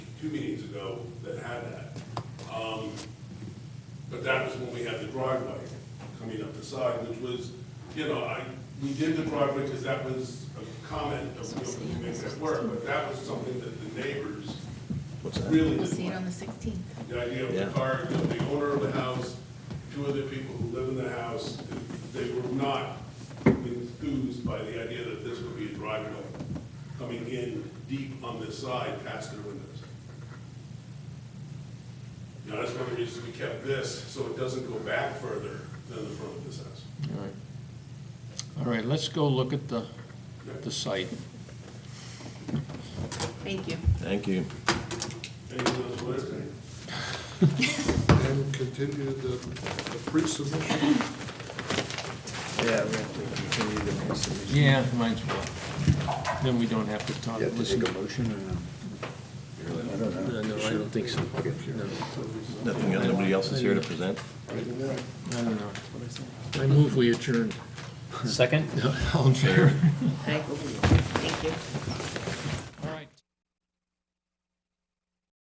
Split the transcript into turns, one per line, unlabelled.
two meetings ago that had that. Um, But that was when we had the driveway coming up the side, which was, you know, I, we did the driveway because that was a comment that we were going to make that work, but that was something that the neighbors
What's that?
really
We'll
didn't
see it
like.
on the 16th.
The idea of
Yeah.
the car, you know, the owner of the house, two other people who live in the house, they were not enthused by the idea that this would be a driveway coming in deep on this side past their windows. You know, that's one of the reasons we kept this, so it doesn't go back further than the front of this house.
All right. All right, let's go look at the, the site.
Thank you.
Thank you.
Anything else, Blair?
And continue the the pre-submission.
Yeah, we have to continue the resolution.
Yeah, mine's well. Then we don't have to talk,
You have to
listen.
take a motion or no? I don't know.
No, no, I don't think so.
Okay.
Nothing, nobody else is here to present?
I don't know. I move we adjourn.
Second?
All in favor?
Aye.